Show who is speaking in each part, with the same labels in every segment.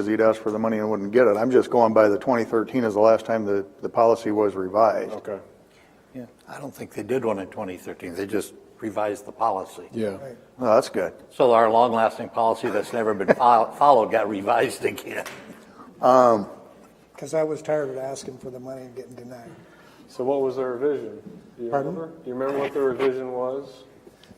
Speaker 1: because he'd asked for the money and wouldn't get it. I'm just going by the 2013 is the last time the, the policy was revised.
Speaker 2: Oh.
Speaker 3: Okay.
Speaker 2: Yeah, I don't think they did one in 2013. They just revised the policy.
Speaker 3: Yeah.
Speaker 1: Oh, that's good.
Speaker 2: So our long-lasting policy that's never been fol- followed got revised again.
Speaker 4: Because I was tired of asking for the money and getting denied.
Speaker 3: So what was the revision? Do you
Speaker 4: Pardon?
Speaker 3: remember? Do you remember what the revision was?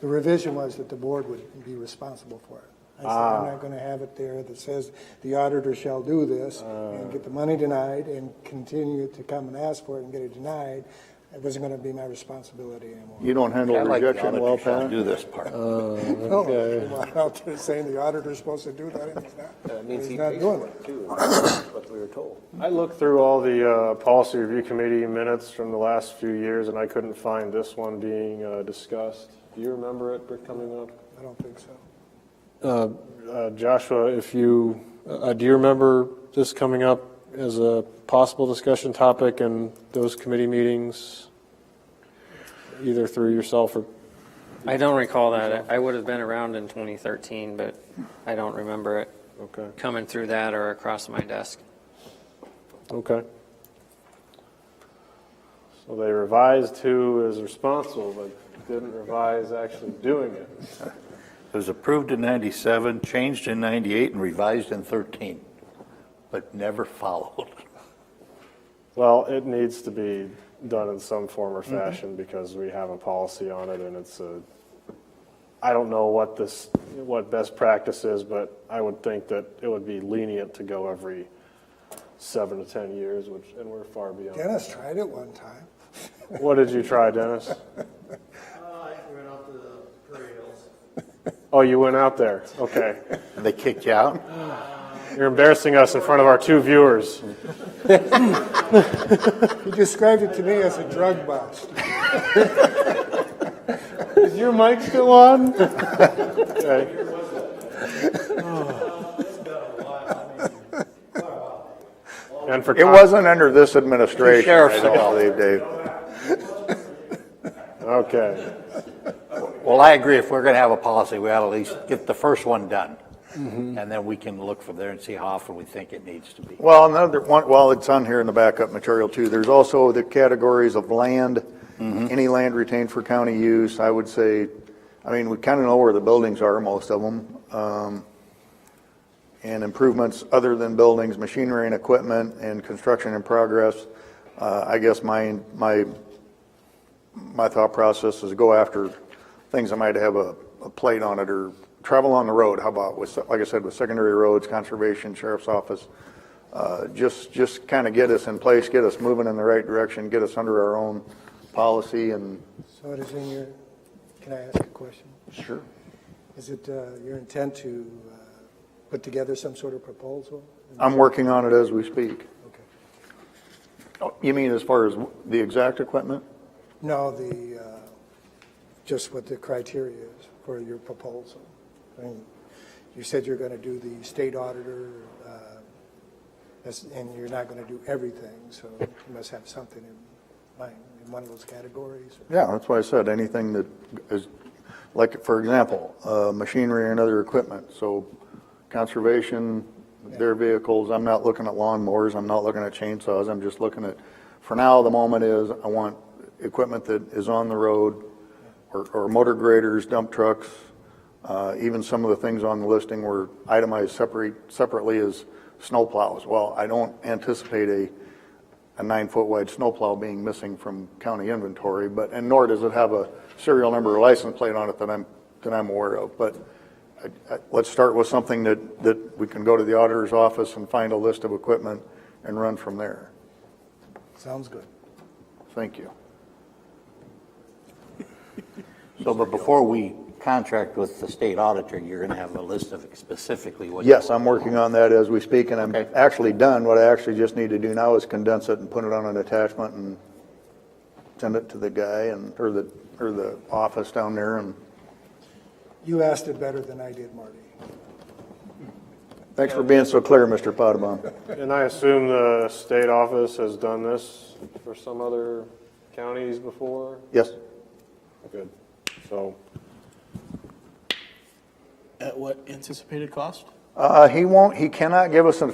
Speaker 4: The revision was that the board would be responsible for it. I said, I'm not going to have it there that says the auditor shall do this and get the money denied and continue to come and ask for it and get it denied. It wasn't going to be my responsibility anymore.
Speaker 1: You don't handle
Speaker 2: I like the
Speaker 1: rejection well,
Speaker 2: auditor shall
Speaker 1: Pat?
Speaker 2: Do this part.
Speaker 4: No, I'm not out there saying the auditor's supposed to do that and he's not. He's not doing it.
Speaker 3: too, what we were told. I looked through all the uh, policy review committee minutes from the last few years, and I couldn't find this one being uh, discussed. Do you remember it coming up?
Speaker 4: I don't think so.
Speaker 3: Uh, Joshua, if you, uh, do you remember this coming up as a possible discussion topic in those committee meetings? Either through yourself or,
Speaker 5: I don't recall that. I would have been around in 2013, but I don't remember it
Speaker 3: okay,
Speaker 5: coming through that or across my desk.
Speaker 3: okay. So they revised who is responsible, but didn't revise actually doing it.
Speaker 2: It was approved in 97, changed in 98, and revised in 13, but never followed.
Speaker 3: Well, it needs to be done in some form or fashion because we have a policy on it and it's a, I don't know what this, what best practice is, but I would think that it would be lenient to go every seven to 10 years, which, and we're far beyond.
Speaker 4: Dennis tried it one time.
Speaker 3: What did you try, Dennis?
Speaker 6: Uh, I went out to the Prairie Hills.
Speaker 3: Oh, you went out there. Okay.
Speaker 2: And they kicked you out?
Speaker 3: You're embarrassing us in front of our two viewers.
Speaker 4: He described it to me as a drug bust.
Speaker 3: Is your mic still on? Okay. And for
Speaker 1: It wasn't under this administration, I
Speaker 2: Sheriff's
Speaker 1: don't
Speaker 2: Department.
Speaker 1: believe, Dave.
Speaker 3: Okay.
Speaker 2: Well, I agree, if we're going to have a policy, we ought to at least get the first one done.
Speaker 1: Mm-hmm.
Speaker 2: And then we can look from there and see how often we think it needs to be.
Speaker 1: Well, another one, while it's on here in the backup material too, there's also the categories of land, any land retained for county use, I would say, I mean, we kind of know where the buildings are, most of them. um, And improvements other than buildings, machinery and equipment, and construction in progress. Uh, I guess my, my, my thought process is go after things that might have a, a plate on it, or travel on the road, how about with, like I said, with secondary roads, conservation, sheriff's office, uh, just, just kind of get us in place, get us moving in the right direction, get us under our own policy and.
Speaker 4: So it is in your, can I ask a question?
Speaker 1: Sure.
Speaker 4: Is it uh, your intent to uh, put together some sort of proposal?
Speaker 1: I'm working on it as we speak.
Speaker 4: Okay.
Speaker 1: Oh, You mean as far as the exact equipment?
Speaker 4: No, the, uh, just what the criteria is for your proposal. I mean, You said you're going to do the state auditor, uh, that's- and you're not going to do everything, so you must have something in mind, in one of those categories.
Speaker 1: Yeah, that's why I said anything that is, like, for example, uh, machinery and other equipment, so conservation, their vehicles, I'm not looking at lawnmowers, I'm not looking at chainsaws, I'm just looking at, for now, the moment is, I want equipment that is on the road, or, or motor graders, dump trucks, uh, even some of the things on the listing were itemized separate, separately as snowplows. Well, I don't anticipate a, a nine-foot wide snowplow being missing from county inventory, but, and nor does it have a serial number or license plate on it that I'm, that I'm aware of. But I- I- let's start with something that, that we can go to the auditor's office and find a list of equipment and run from there.
Speaker 4: Sounds good.
Speaker 1: Thank you.
Speaker 2: So, but before we contract with the state auditor, you're going to have a list of specifically what. you
Speaker 1: Yes,
Speaker 2: want.
Speaker 1: I'm working on that as we speak, and I'm
Speaker 2: Okay.
Speaker 1: actually done. What I actually just need to do now is condense it and put it on an attachment and send it to the guy and, or the, or the office down there, and
Speaker 4: You asked it better than I did, Marty.
Speaker 1: thanks for being so clear, Mr. Potabom.
Speaker 3: And I assume the state office has done this for some other counties before?
Speaker 1: Yes?
Speaker 3: Good. So
Speaker 7: At what anticipated cost?
Speaker 1: Uh, he won't, he cannot give us an